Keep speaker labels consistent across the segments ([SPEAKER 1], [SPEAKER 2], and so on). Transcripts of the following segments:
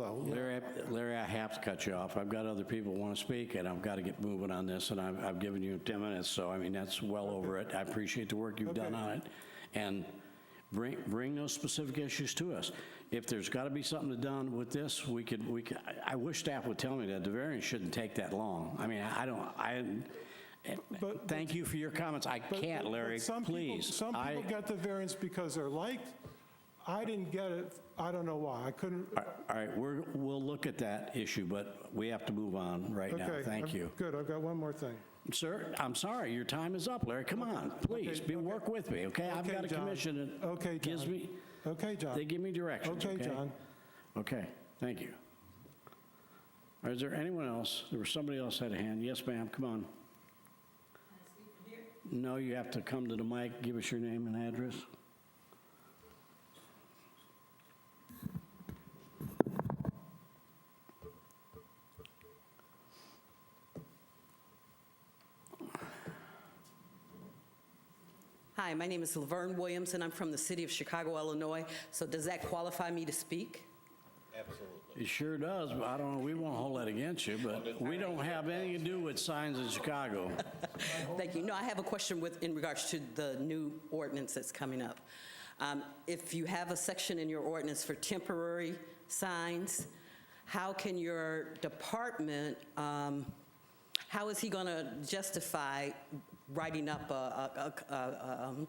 [SPEAKER 1] Well,
[SPEAKER 2] Larry, I- Larry, I have to cut you off. I've got other people who want to speak, and I've got to get moving on this, and I've, I've given you 10 minutes, so I mean, that's well over it. I appreciate the work you've done on it. And bring, bring those specific issues to us. If there's got to be something done with this, we could, we could, I- I wish staff would tell me that the variance shouldn't take that long. I mean, I I don't, I,
[SPEAKER 1] But-
[SPEAKER 2] thank you for your comments. I
[SPEAKER 1] but-
[SPEAKER 2] can't, Larry,
[SPEAKER 1] but some people-
[SPEAKER 2] please.
[SPEAKER 1] Some
[SPEAKER 2] I-
[SPEAKER 1] people get the variance because they're liked. I didn't get it, I don't know why, I couldn't.
[SPEAKER 2] All right, we're, we'll look at that issue, but we have to move on right now.
[SPEAKER 1] Okay,
[SPEAKER 2] Thank
[SPEAKER 1] I'm-
[SPEAKER 2] you.
[SPEAKER 1] Good, I've got one more thing.
[SPEAKER 2] Sir, I'm sorry, your time is up, Larry. Come on, please,
[SPEAKER 1] okay,
[SPEAKER 2] be,
[SPEAKER 1] okay.
[SPEAKER 2] work with me, okay? I've
[SPEAKER 1] Okay,
[SPEAKER 2] got a
[SPEAKER 1] John.
[SPEAKER 2] commission that
[SPEAKER 1] Okay,
[SPEAKER 2] gives
[SPEAKER 1] John.
[SPEAKER 2] me,
[SPEAKER 1] Okay,
[SPEAKER 2] they
[SPEAKER 1] John.
[SPEAKER 2] give me directions, okay?
[SPEAKER 1] Okay, John.
[SPEAKER 2] Okay, thank you. Is there anyone else? There was somebody else had a hand. Yes, ma'am, come on. No, you have to come to the mic, give us your name and address.
[SPEAKER 3] Hi, my name is Laverne Williams, and I'm from the city of Chicago, Illinois. So does that qualify me to speak?
[SPEAKER 2] It sure does, but I don't know, we won't hold that against you, but we don't have anything to do with signs in Chicago.
[SPEAKER 3] Thank you. No, I have a question with, in regards to the new ordinance that's coming up. Um, If you have a section in your ordinance for temporary signs, how can your department, um, how is he going to justify writing up a- a, a- a- um,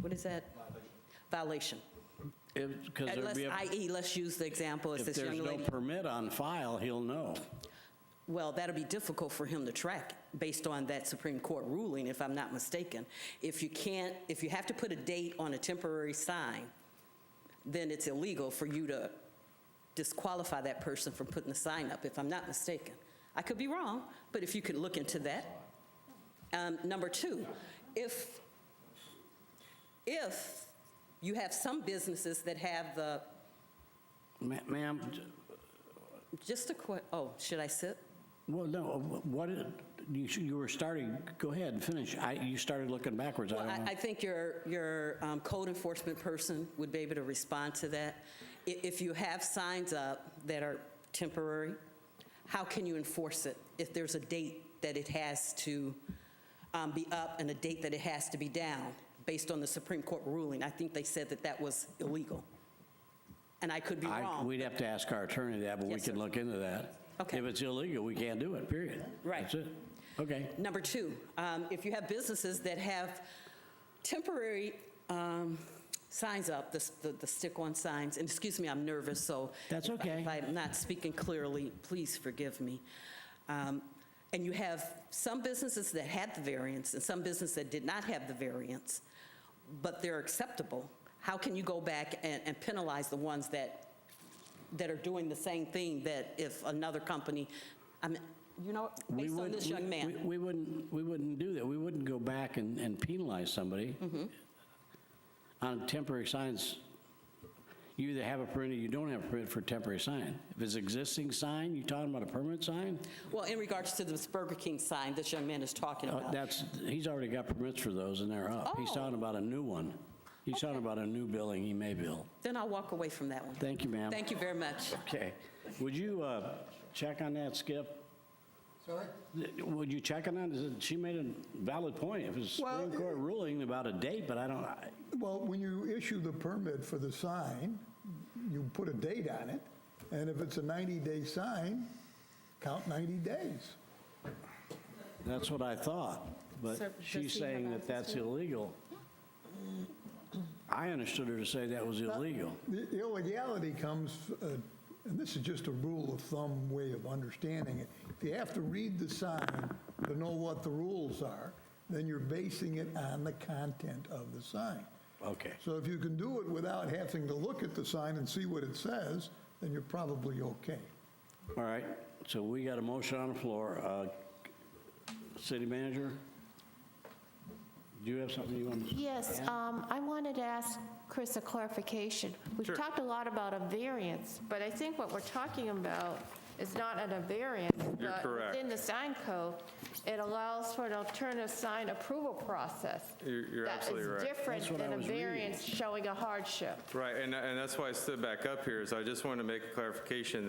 [SPEAKER 3] what is that? Violation.
[SPEAKER 2] Because there'd
[SPEAKER 3] Let's-
[SPEAKER 2] be, a-
[SPEAKER 3] I.e., let's use the example, as
[SPEAKER 2] if
[SPEAKER 3] this young
[SPEAKER 2] there's
[SPEAKER 3] lady.
[SPEAKER 2] no permit on file, he'll know.
[SPEAKER 3] Well, that'll be difficult for him to track based on that Supreme Court ruling, if I'm not mistaken. If you can't, if you have to put a date on a temporary sign, then it's illegal for you to disqualify that person from putting the sign up, if I'm not mistaken. I could be wrong, but if you could look into that. Um, Number two, if, if you have some businesses that have the,
[SPEAKER 2] Ma- Ma'am, j-
[SPEAKER 3] just a que, oh, should I sit?
[SPEAKER 2] well, no, uh, what, you sh- you were starting, go ahead and finish. I- You started looking backwards, I
[SPEAKER 3] Well,
[SPEAKER 2] don't
[SPEAKER 3] I,
[SPEAKER 2] know.
[SPEAKER 3] I think your, your um, code enforcement person would be able to respond to that. I- If you have signs up that are temporary, how can you enforce it if there's a date that it has to um, be up and a date that it has to be down based on the Supreme Court ruling? I think they said that that was illegal. And I could be
[SPEAKER 2] I-
[SPEAKER 3] wrong.
[SPEAKER 2] We'd have to ask our attorney that, but we
[SPEAKER 3] Yes,
[SPEAKER 2] could
[SPEAKER 3] sir.
[SPEAKER 2] look into that.
[SPEAKER 3] Okay.
[SPEAKER 2] If it's illegal, we can't do it, period.
[SPEAKER 3] Right.
[SPEAKER 2] That's it. Okay.
[SPEAKER 3] Number two, um, if you have businesses that have temporary um, signs up, the s- the the stick-on signs, and excuse me, I'm nervous, so.
[SPEAKER 2] That's
[SPEAKER 3] if I-
[SPEAKER 2] okay.
[SPEAKER 3] If I'm not speaking clearly, please forgive me. Um, And you have some businesses that had the variance and some businesses that did not have the variance, but they're acceptable. How can you go back and and penalize the ones that that are doing the same thing that if another company, I mean, you know,
[SPEAKER 2] We
[SPEAKER 3] based on
[SPEAKER 2] wouldn't-
[SPEAKER 3] this young
[SPEAKER 2] we-
[SPEAKER 3] man.
[SPEAKER 2] we- We wouldn't, we wouldn't do that. We wouldn't go back and and penalize somebody
[SPEAKER 3] Mm-hmm.
[SPEAKER 2] on temporary signs. You either have a permit or you don't have a permit for a temporary sign. If it's existing sign, you talking about a permanent sign?
[SPEAKER 3] Well, in regards to this Burger King sign this young man is talking
[SPEAKER 2] Uh,
[SPEAKER 3] about.
[SPEAKER 2] That's, he's already got permits for those, and they're up. He's
[SPEAKER 3] Oh.
[SPEAKER 2] talking about a new one. He's talking about a new building he may build.
[SPEAKER 3] Then I'll walk away from that one.
[SPEAKER 2] Thank you, ma'am.
[SPEAKER 3] Thank you very much.
[SPEAKER 2] Okay. Would you uh, check on that, Skip?
[SPEAKER 4] Sorry?
[SPEAKER 2] Th- Would you check on that? Is it- She made a valid point. It was a
[SPEAKER 4] Well,
[SPEAKER 2] Supreme Court ruling about a date, but I don't, I-
[SPEAKER 4] Well, when you issue the permit for the sign, you put a date on it, and if it's a 90-day sign, count 90 days.
[SPEAKER 2] that's what I thought.
[SPEAKER 5] Sir,
[SPEAKER 2] But
[SPEAKER 5] does
[SPEAKER 2] she's
[SPEAKER 5] he have
[SPEAKER 2] saying that
[SPEAKER 5] access
[SPEAKER 2] that's
[SPEAKER 5] to it?
[SPEAKER 2] illegal. I understood her to say that was illegal.
[SPEAKER 4] The the illegality comes, uh, and this is just a rule of thumb way of understanding it. If you have to read the sign to know what the rules are, then you're basing it on the content of the sign.
[SPEAKER 2] Okay.
[SPEAKER 4] So if you can do it without having to look at the sign and see what it says, then you're probably okay.
[SPEAKER 2] All right, so we got a motion on the floor. Uh, City manager? do you have something you want to?
[SPEAKER 5] Yes, um, I wanted to ask Chris a clarification. We've talked a lot about a variance, but I think what we're talking about is not an a variance.
[SPEAKER 6] You're correct.
[SPEAKER 5] But within the sign code, it allows for an alternative sign approval process.
[SPEAKER 6] You're- you're absolutely right.
[SPEAKER 5] That is
[SPEAKER 2] That's what
[SPEAKER 5] different
[SPEAKER 2] I
[SPEAKER 5] than a
[SPEAKER 2] was reading.
[SPEAKER 5] variance showing a hardship.
[SPEAKER 6] Right, and, and that's why I stood back up here, is I just wanted to make a clarification that